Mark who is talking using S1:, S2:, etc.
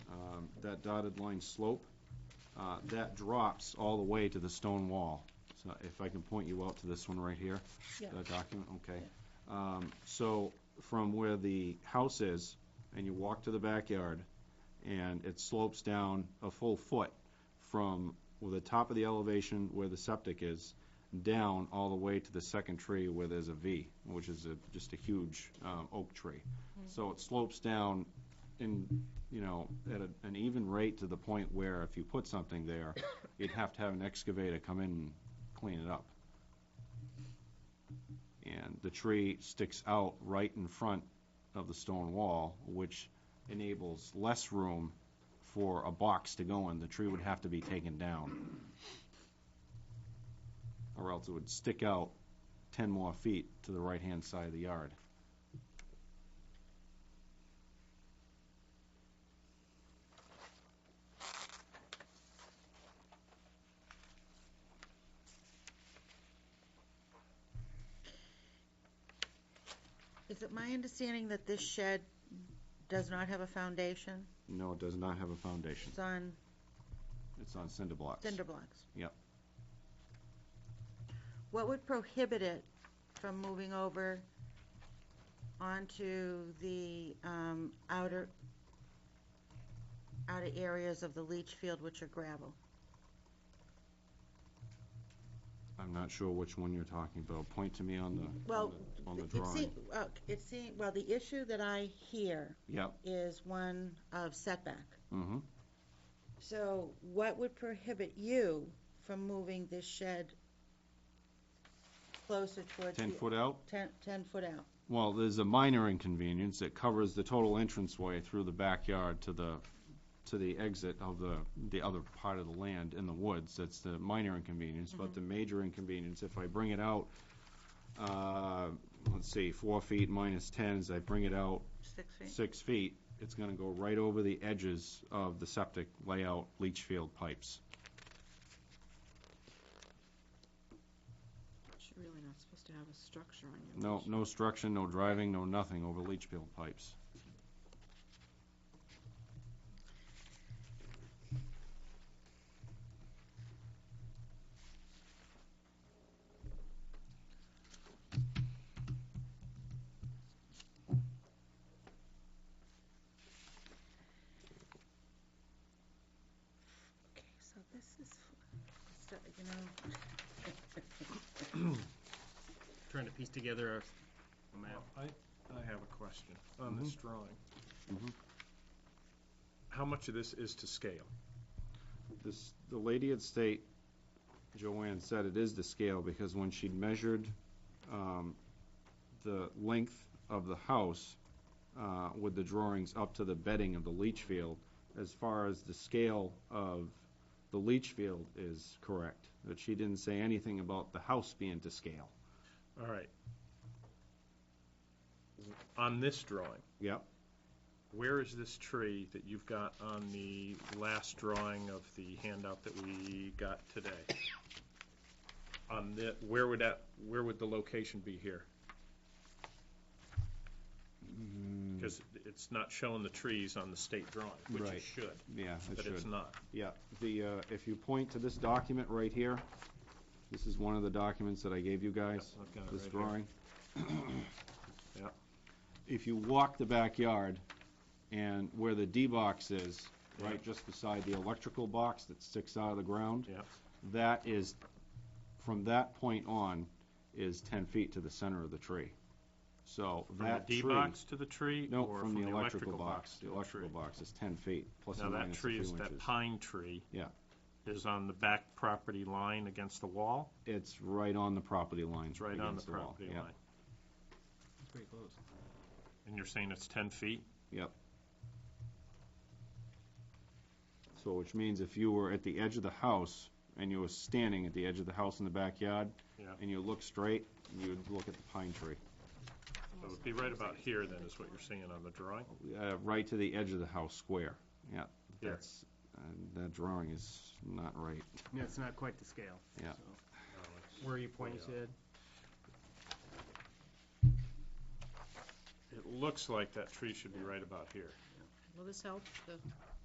S1: um, that dotted line slope, uh, that drops all the way to the stone wall. So if I can point you out to this one right here.
S2: Yeah.
S1: That document, okay. Um, So from where the house is, and you walk to the backyard, and it slopes down a full foot from the top of the elevation where the septic is, down all the way to the second tree where there's a V, which is a, just a huge um, oak tree. So it slopes down in, you know, at a- an even rate to the point where if you put something there, you'd have to have an excavator come in and clean it up. And the tree sticks out right in front of the stone wall, which enables less room for a box to go in. The tree would have to be taken down. Or else it would stick out 10 more feet to the right-hand side of the yard.
S2: Is it my understanding that this shed does not have a foundation?
S1: No, it does not have a foundation.
S2: It's on
S1: It's on cinder blocks.
S2: cinder blocks?
S1: Yep.
S2: What would prohibit it from moving over onto the um, outer, outer areas of the leach field, which are gravel?
S1: I'm not sure which one you're talking about. Point to me on the, on
S2: Well,
S1: the- on the
S2: It
S1: drawing.
S2: seem- uh, It seems, well, the issue that I hear
S1: Yep.
S2: is one of setback.
S1: hmm
S2: So what would prohibit you from moving this shed closer towards?
S1: 10
S2: the-
S1: foot out?
S2: Ten, ten foot out.
S1: Well, there's a minor inconvenience. It covers the total entranceway through the backyard to the, to the exit of the, the other part of the land in the woods. That's the minor inconvenience, but the major inconvenience, if I bring it out, uh, let's see, four feet minus 10, as I bring it out
S2: Six
S1: six feet, it's gonna go right over the edges of the septic layout leach field pipes.
S3: You're really not supposed to have a structure on your.
S1: No, no structure, no driving, no nothing over leach field pipes.
S2: Okay, so this is, so, you know,
S4: trying to piece together a- a map.
S5: I, I have a question on this drawing.
S1: Mhm.
S5: How much of this is to scale?
S1: This, the lady at state, Joanne said it is the scale, because when she measured, um, the length of the house, uh, with the drawings up to the bedding of the leach field, as far as the scale of the leach field is correct, but she didn't say anything about the house being to scale.
S5: All right. On this drawing?
S1: Yep.
S5: Where is this tree that you've got on the last drawing of the handout that we got today? On the, where would that, where would the location be here?
S1: Mm.
S5: Because it's not showing the trees on the state drawing, which
S1: Right.
S5: it should,
S1: Yeah, it
S5: but
S1: should.
S5: it's not.
S1: The, uh, if you point to this document right here, this is one of the documents that I gave you guys.
S5: I've got it
S1: this
S5: right here.
S1: drawing.
S5: Yeah.
S1: If you walk the backyard and where the D-box is, right, just beside the electrical box that sticks out of the ground.
S5: Yeah.
S1: That is, from that point on, is ten feet to the center of the tree. So
S5: From the
S1: that tree.
S5: D box to the tree?
S1: No,
S5: or
S1: from the electrical box.
S5: to
S1: The
S5: the
S1: electrical
S5: tree?
S1: box is ten feet, plus or
S5: Now, that
S1: minus a few
S5: tree
S1: inches.
S5: is, that pine tree.
S1: Yeah.
S5: Is on the back property line against the wall.
S1: It's right on the property lines.
S5: It's right on the
S1: against wall.
S5: property
S1: Yeah.
S5: line. And you're saying it's 10 feet?
S1: So which means if you were at the edge of the house and you were standing at the edge of the house in the backyard
S5: Yeah.
S1: and you look straight, you would look at the pine tree,
S5: So it'd be right about here then, is what you're seeing on the drawing?
S1: uh, right to the edge of the house square. Yeah,
S5: Here.
S1: that's, uh, that drawing is not right.
S4: No, it's not quite the scale.
S1: Yeah.
S4: so. Where are you pointing,
S5: way
S4: Sid?
S5: It looks like that tree should be right about here.
S3: Will this help the